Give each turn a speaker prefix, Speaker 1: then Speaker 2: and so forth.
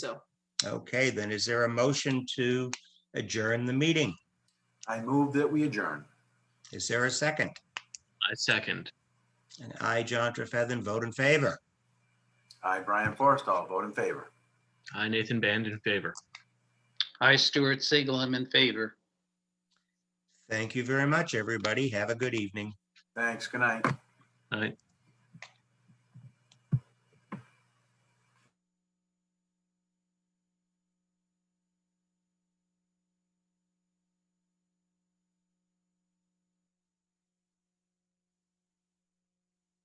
Speaker 1: so.
Speaker 2: Okay, then is there a motion to adjourn the meeting?
Speaker 3: I move that we adjourn.
Speaker 2: Is there a second?
Speaker 4: I second.
Speaker 2: And I, John Trefethan, vote in favor.
Speaker 3: I, Brian Forrestall, vote in favor.
Speaker 4: I, Nathan Band, in favor.
Speaker 5: I, Stuart Siegel, I'm in favor.
Speaker 2: Thank you very much, everybody. Have a good evening.
Speaker 3: Thanks. Good night.
Speaker 4: All right.